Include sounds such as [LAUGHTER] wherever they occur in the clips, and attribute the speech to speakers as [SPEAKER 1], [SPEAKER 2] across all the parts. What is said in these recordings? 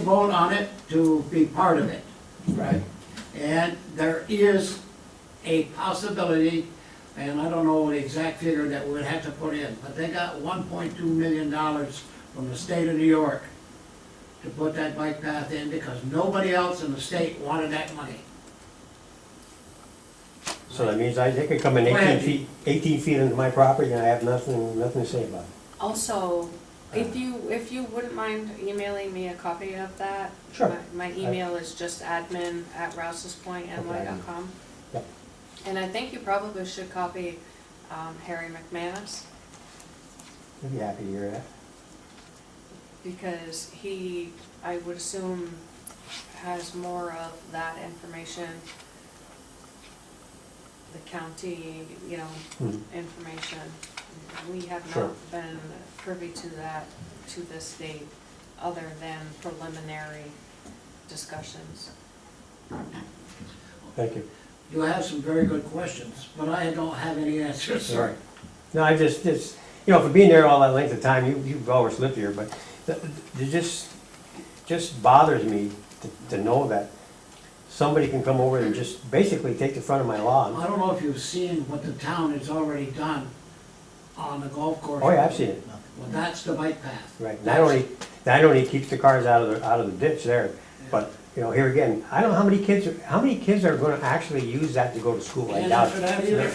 [SPEAKER 1] vote on it to be part of it.
[SPEAKER 2] Right.
[SPEAKER 1] And there is a possibility, and I don't know the exact figure that we'd have to put in, but they got one point two million dollars from the state of New York to put that bike path in because nobody else in the state wanted that money.
[SPEAKER 3] So that means I, they could come in eighteen
[SPEAKER 1] Right.
[SPEAKER 3] feet, eighteen feet into my property and I have nothing, nothing to say about it.
[SPEAKER 4] Also, if you, if you wouldn't mind emailing me a copy of that?
[SPEAKER 3] Sure.
[SPEAKER 4] my- My email is just admin at admin@rouse'spointny.com.
[SPEAKER 3] Yep.
[SPEAKER 4] And I think you probably should copy um, Harry McManus,
[SPEAKER 3] I'd be happy to hear that.
[SPEAKER 4] because he, I would assume, has more of that information. The county, you know,
[SPEAKER 3] Mhm.
[SPEAKER 4] information. We have
[SPEAKER 3] Sure.
[SPEAKER 4] not been privy to that to this date, other than preliminary discussions.
[SPEAKER 3] Thank you.
[SPEAKER 1] You have some very good questions, but I don't have any answers.
[SPEAKER 3] Sorry. No, I just, just, you know, for being there all that length of time, you, you've always lived here, but th- th- it just, just bothers me to, to know that somebody can come over and just basically take the front of my lawn.
[SPEAKER 1] I don't know if you've seen what the town has already done on the golf course.
[SPEAKER 3] Oh, yeah, I've seen it.
[SPEAKER 1] Well, that's the bike path.
[SPEAKER 3] Right, not only, not only keeps the cars out of the, out of the ditch there, but, you know, here again, I don't know how many kids, are- how many kids are gonna actually use that to go to school, I
[SPEAKER 1] And
[SPEAKER 3] doubt
[SPEAKER 1] after
[SPEAKER 3] it.
[SPEAKER 1] that either.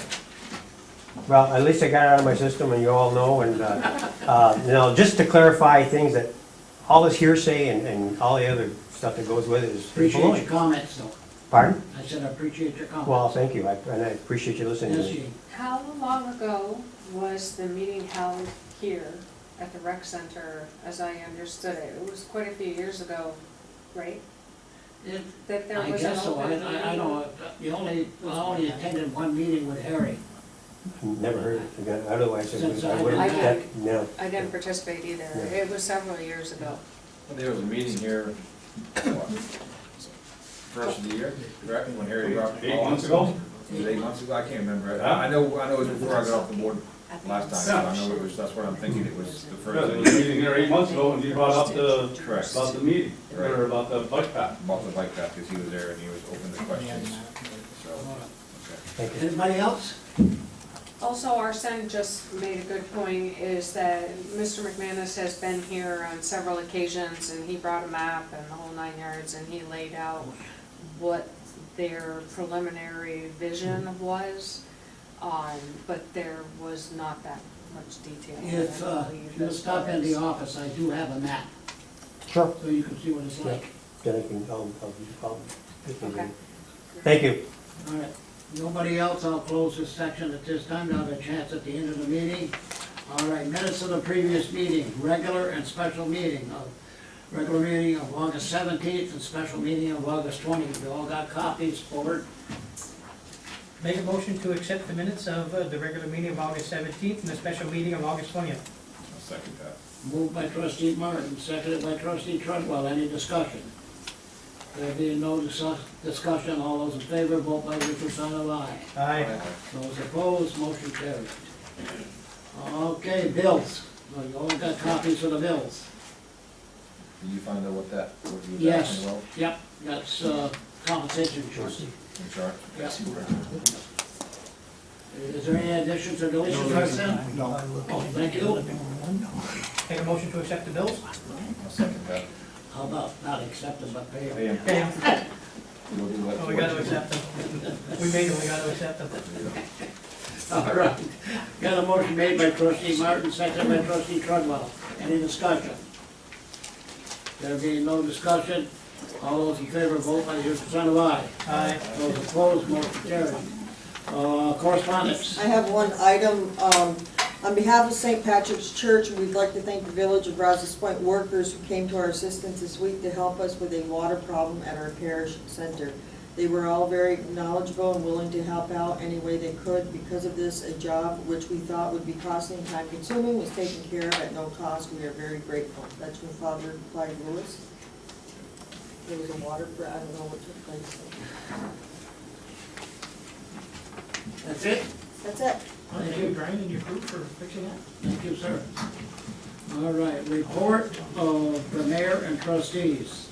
[SPEAKER 3] Well, at least I got it out of my system, and you all know,
[SPEAKER 1] [LAUGHS]
[SPEAKER 3] and, uh, uh, now, just to clarify things that, all this hearsay and, and all the other stuff that goes with it is
[SPEAKER 1] Appreciate
[SPEAKER 3] baloney.
[SPEAKER 1] your comments, though.
[SPEAKER 3] Pardon?
[SPEAKER 1] I said I appreciate your comments.
[SPEAKER 3] Well, thank you, I- and I appreciate you listening to
[SPEAKER 1] Yes,
[SPEAKER 3] me.
[SPEAKER 1] Gene.
[SPEAKER 4] How long ago was the meeting held here at the rec center, as I understood it? It was quite a few years ago, right?
[SPEAKER 1] It-
[SPEAKER 4] That there
[SPEAKER 1] I
[SPEAKER 4] was an
[SPEAKER 1] guess so, I,
[SPEAKER 4] open
[SPEAKER 1] I, I
[SPEAKER 4] meeting?
[SPEAKER 1] know, the only, I only attended one meeting with Harry.
[SPEAKER 3] Never heard it again, otherwise I
[SPEAKER 1] Since
[SPEAKER 3] would,
[SPEAKER 1] I-
[SPEAKER 3] I would
[SPEAKER 4] I-
[SPEAKER 3] have, no.
[SPEAKER 4] I didn't participate either.
[SPEAKER 3] Yeah.
[SPEAKER 4] It was several years ago.
[SPEAKER 5] There was a meeting here, what, first of the year, correct, when Harry dropped the
[SPEAKER 6] Eight
[SPEAKER 5] ball?
[SPEAKER 6] months ago?
[SPEAKER 5] It was eight months ago, I can't remember, I, I know, I know it was before I got off the board last time, so I know it was, that's what I'm thinking, it was the
[SPEAKER 6] Yeah, there
[SPEAKER 5] first of
[SPEAKER 6] was a
[SPEAKER 5] the year,
[SPEAKER 6] meeting here eight months ago, and you brought up the,
[SPEAKER 5] correct,
[SPEAKER 6] about the meeting, or about the bike path.
[SPEAKER 5] bought the bike path, because he was there and he was open to questions, so, okay.
[SPEAKER 3] Thank you.
[SPEAKER 1] Anybody else?
[SPEAKER 4] Also, Arsen just made a good point, is that Mr. McManus has been here on several occasions, and he brought a map and the whole nine yards, and he laid out what their preliminary vision was, um, but there was not that much detail.
[SPEAKER 1] If, uh, you'll stop in the office, I do have a map,
[SPEAKER 3] Sure.
[SPEAKER 1] so you can see what it's like.
[SPEAKER 3] Then I can, I'll, I'll, I'll.
[SPEAKER 4] Okay.
[SPEAKER 3] Thank you.
[SPEAKER 1] All right, nobody else, I'll close this section at this time, I'll have a chance at the end of the meeting. All right, minutes of the previous meeting, regular and special meeting of, regular meeting of August seventeenth and special meeting of August twentieth. You all got copies, forward.
[SPEAKER 7] Make a motion to accept the minutes of uh, the regular meeting of August seventeenth and the special meeting of August twentieth.
[SPEAKER 5] I'll second that.
[SPEAKER 1] Moved by trustee Martin, seconded by trustee Trudwell. Any discussion? There being no discuss- discussion, all those in favor, vote by your sign of aye.
[SPEAKER 7] Aye.
[SPEAKER 1] Those opposed, motion carried. Okay, bills. Well, You all got copies of the bills?
[SPEAKER 5] Did you find out what that, what you were
[SPEAKER 1] Yes.
[SPEAKER 5] asking about?
[SPEAKER 1] Yep, that's uh, compensation insurance.
[SPEAKER 5] I'm sorry.
[SPEAKER 1] Yes. Is there any additions or deletions, Roxanne? Oh, thank you.
[SPEAKER 7] Make a motion to accept the bills?
[SPEAKER 5] I'll second that.
[SPEAKER 1] How about not accepted but paid?
[SPEAKER 5] Hey,
[SPEAKER 7] Okay,
[SPEAKER 5] we'll do what-
[SPEAKER 7] well, Oh, we gotta accept them. We made them, we gotta accept them.
[SPEAKER 1] [LAUGHS] All right. Got a motion made by trustee Martin, seconded by trustee Trudwell. Any discussion? There being no discussion, all those in favor vote by your consent of aye.
[SPEAKER 7] Aye.
[SPEAKER 1] Those opposed, motion carried. Uh, Correspondence.
[SPEAKER 8] I have one item, um, on behalf of St. Patrick's Church, we'd like to thank the Village of Rouse's Point workers who came to our assistance this week to help us with a water problem at our parish center. They were all very knowledgeable and willing to help out any way they could. Because of this, a job which we thought would be costly and time consuming was taken care of at no cost. We are very grateful. That's from Father Clyde Lewis. There was a water, fr- I don't know what took place.
[SPEAKER 1] That's it?
[SPEAKER 8] That's it.
[SPEAKER 7] Thank you, Brian, and your group for fixing that.
[SPEAKER 1] Thank you, sir. All right, report of the mayor and trustees.